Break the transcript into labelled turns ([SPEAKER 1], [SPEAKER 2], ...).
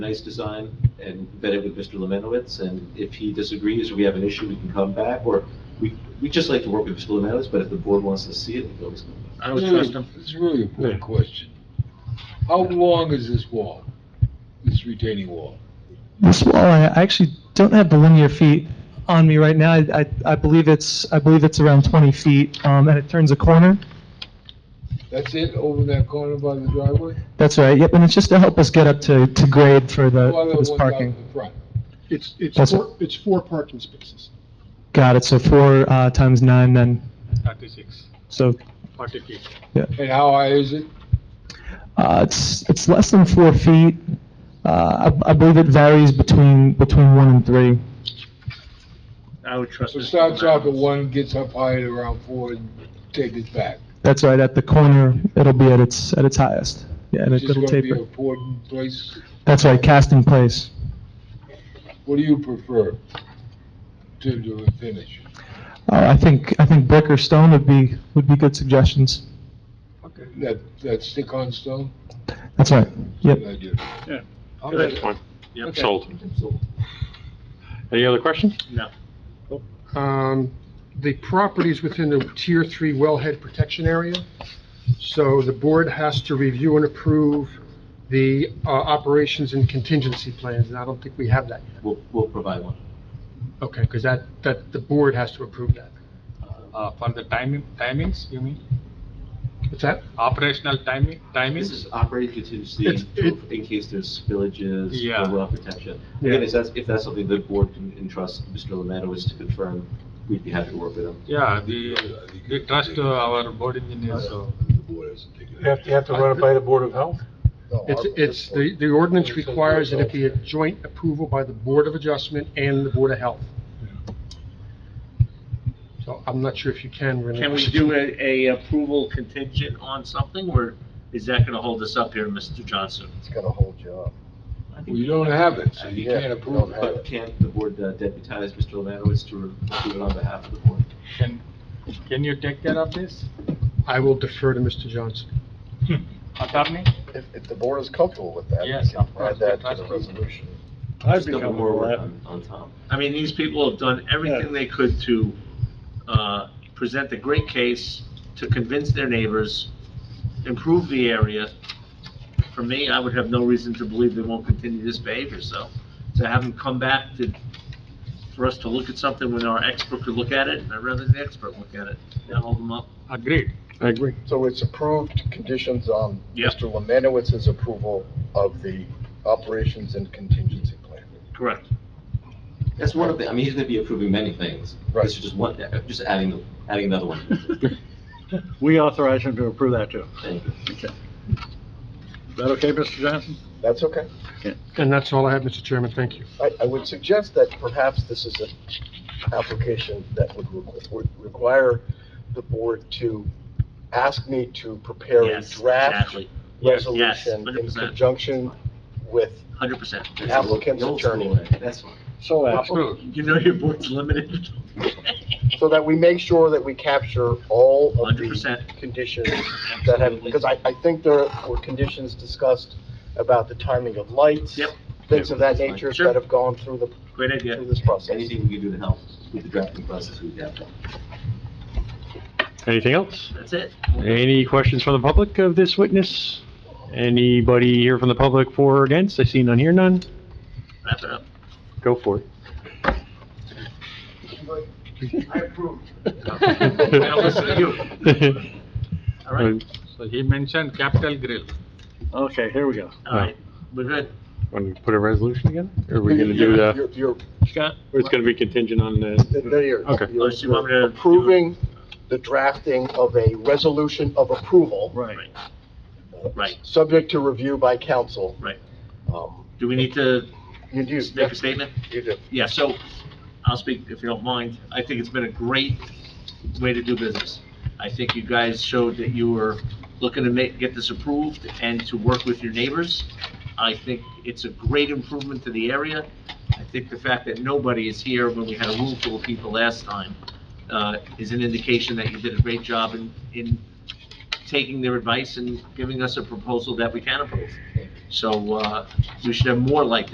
[SPEAKER 1] nice design and vet it with Mr. Lemanowitz, and if he disagrees or we have an issue, we can come back, or we, we just like to work with Mr. Lemanowitz, but if the board wants to see it, we can always come back.
[SPEAKER 2] I would trust him.
[SPEAKER 3] Hmm. It's a really important question. How long is this wall, this retaining wall?
[SPEAKER 4] This wall, I I actually don't have the linear feet on me right now. I, I- I believe it's, I believe it's around 20 feet, um, and it turns a corner.
[SPEAKER 3] That's it, over that corner by the driveway?
[SPEAKER 4] That's right, yep, and it's just to help us get up to, to grade for the,
[SPEAKER 3] Or the
[SPEAKER 4] for
[SPEAKER 3] ones
[SPEAKER 4] this
[SPEAKER 3] out
[SPEAKER 4] parking.
[SPEAKER 3] in the front?
[SPEAKER 5] It's, it's
[SPEAKER 4] That's
[SPEAKER 5] four, it's four parking spaces.
[SPEAKER 4] Got it, so four uh, times nine then,
[SPEAKER 5] 36,
[SPEAKER 4] so
[SPEAKER 5] 40 feet.
[SPEAKER 3] And how high is it?
[SPEAKER 4] uh, it's, it's less than four feet. Uh, I I believe it varies between, between one and three.
[SPEAKER 2] I would trust
[SPEAKER 3] So
[SPEAKER 2] him.
[SPEAKER 3] it starts off at one, gets up high at around four, and take it back.
[SPEAKER 4] That's right, at the corner, it'll be at its, at its highest. Yeah, and
[SPEAKER 3] It's
[SPEAKER 4] it-
[SPEAKER 3] just
[SPEAKER 4] it'll
[SPEAKER 3] gonna be an
[SPEAKER 4] taper.
[SPEAKER 3] important place.
[SPEAKER 4] That's right, cast in place.
[SPEAKER 3] What do you prefer to do a finish?
[SPEAKER 4] Uh, I think, I think brick or stone would be, would be good suggestions.
[SPEAKER 3] That, that stick-on stone?
[SPEAKER 4] That's right. Yep.
[SPEAKER 3] Good idea.
[SPEAKER 2] Yeah.
[SPEAKER 3] I'm
[SPEAKER 6] That's
[SPEAKER 3] gonna-
[SPEAKER 6] fine. Yep,
[SPEAKER 2] Okay.
[SPEAKER 6] sold.
[SPEAKER 1] So
[SPEAKER 6] Any other questions?
[SPEAKER 2] No.
[SPEAKER 5] Um, The property's within the Tier 3 wellhead protection area, so the board has to review and approve the uh, operations and contingency plans, and I don't think we have that. yet.
[SPEAKER 1] We'll, we'll provide one.
[SPEAKER 5] Okay, because that, that, the board has to approve that.
[SPEAKER 7] Uh, for the timing, timings, you mean?
[SPEAKER 5] What's that?
[SPEAKER 7] Operational timing,
[SPEAKER 1] This
[SPEAKER 7] timings?
[SPEAKER 1] is operating contingency
[SPEAKER 5] It's- it-
[SPEAKER 1] in case there's spillages
[SPEAKER 7] Yeah.
[SPEAKER 1] or well protection.
[SPEAKER 5] Yeah.
[SPEAKER 1] Again, if that's, if that's something the board can entrust Mr. Lemanowitz to confirm, we'd be happy to work with him.
[SPEAKER 7] Yeah, the, we trust uh, our board engineer, so.
[SPEAKER 3] The board hasn't taken it.
[SPEAKER 6] you have to run it by the Board of Health?
[SPEAKER 3] No,
[SPEAKER 5] It's,
[SPEAKER 3] I-
[SPEAKER 5] it's, the, the ordinance requires that it be a joint approval by the Board of Adjustment and the Board of Health. So I'm not sure if you can really.
[SPEAKER 2] Can we do a, a approval contingent on something, or is that gonna hold us up here, Mr. Johnson?
[SPEAKER 8] It's gonna hold you up.
[SPEAKER 3] We don't have it, so you
[SPEAKER 8] Yeah,
[SPEAKER 3] can't
[SPEAKER 8] we
[SPEAKER 3] approve
[SPEAKER 8] don't
[SPEAKER 3] it.
[SPEAKER 8] have
[SPEAKER 1] But can't the board uh, deputize Mr. Lemanowitz to do it on behalf of the board?
[SPEAKER 7] Can, can you take care of this,
[SPEAKER 5] I will defer to Mr. Johnson.
[SPEAKER 7] attorney?
[SPEAKER 8] If, if the board is comfortable with that, we
[SPEAKER 7] Yes,
[SPEAKER 8] can
[SPEAKER 7] of course,
[SPEAKER 8] add that
[SPEAKER 7] that's
[SPEAKER 8] to the
[SPEAKER 7] true.
[SPEAKER 8] resolution.
[SPEAKER 1] Just a couple more work on, on Tom.
[SPEAKER 2] I mean, these people have done everything they could to, uh, present a great case, to convince their neighbors, improve the area. For me, I would have no reason to believe they won't continue this behavior, so to have them come back to, for us to look at something when our expert could look at it, I'd rather the expert look at it than hold them up.
[SPEAKER 7] Agreed.
[SPEAKER 6] I agree.
[SPEAKER 8] So it's approved, conditions on
[SPEAKER 2] Yep.
[SPEAKER 8] Mr. Lemanowitz's approval of the operations and contingency plan.
[SPEAKER 2] Correct.
[SPEAKER 1] That's one of the, I mean, he's gonna be approving many things.
[SPEAKER 8] Right.
[SPEAKER 1] This is just one, just adding, adding another one.
[SPEAKER 9] We authorize him to approve that too.
[SPEAKER 1] Thank you.
[SPEAKER 9] Is that okay, Mr. Johnson?
[SPEAKER 8] That's okay.
[SPEAKER 5] And that's all I have, Mr. Chairman, thank you.
[SPEAKER 8] I, I would suggest that perhaps this is an application that would requ- would require the board to ask me to prepare a
[SPEAKER 2] Yes,
[SPEAKER 8] draft
[SPEAKER 2] exactly,
[SPEAKER 7] Yes, yes,
[SPEAKER 8] resolution in
[SPEAKER 2] 100%.
[SPEAKER 8] conjunction with
[SPEAKER 2] hundred percent.
[SPEAKER 8] The applicant's
[SPEAKER 1] The old school
[SPEAKER 8] attorney.
[SPEAKER 1] way, That's fine.
[SPEAKER 9] So
[SPEAKER 2] You know your board's limited.
[SPEAKER 8] So that we make sure that we capture all of the
[SPEAKER 2] 100%.
[SPEAKER 8] conditions that have, because I, I think there were conditions discussed about the timing of lights.
[SPEAKER 2] Yep.
[SPEAKER 8] Things of that
[SPEAKER 1] Yep.
[SPEAKER 8] nature
[SPEAKER 2] Sure.
[SPEAKER 8] that have gone through the,
[SPEAKER 2] Great idea.
[SPEAKER 8] through this process.
[SPEAKER 1] Anything we can do to help with the drafting process, we'd have that.
[SPEAKER 6] Anything else?
[SPEAKER 2] That's it.
[SPEAKER 6] Any questions from the public of this witness? Anybody here from the public for or against? I see none here, none.
[SPEAKER 2] Wrap it up.
[SPEAKER 6] Go for it.
[SPEAKER 2] Now listen to you. All right,
[SPEAKER 7] So he mentioned capital grill.
[SPEAKER 9] Okay, here we go.
[SPEAKER 2] all right, we're good.
[SPEAKER 6] Want to put a resolution again? Or are we going to do the,
[SPEAKER 8] You're, you're,
[SPEAKER 7] Scott?
[SPEAKER 6] or it's going to be contingent on the,
[SPEAKER 8] there you're.
[SPEAKER 6] Okay.
[SPEAKER 8] you're-
[SPEAKER 2] Oh, so you want me to
[SPEAKER 8] you're
[SPEAKER 2] do-
[SPEAKER 8] Approving the drafting of a resolution of approval.
[SPEAKER 9] Right.
[SPEAKER 2] Right.
[SPEAKER 8] Subject to review by council.
[SPEAKER 2] Right.
[SPEAKER 8] Um,
[SPEAKER 2] Do we need to
[SPEAKER 8] You do.
[SPEAKER 2] just make a statement?
[SPEAKER 8] You do.
[SPEAKER 2] Yeah, so I'll speak if you don't mind. I think it's been a great way to do business. I think you guys showed that you were looking to make, get this approved and to work with your neighbors. I think it's a great improvement to the area. I think the fact that nobody is here when we had a room full of people last time, uh, is an indication that you did a great job in, in taking their advice and giving us a proposal that we can approve. So, uh, we should have more like this.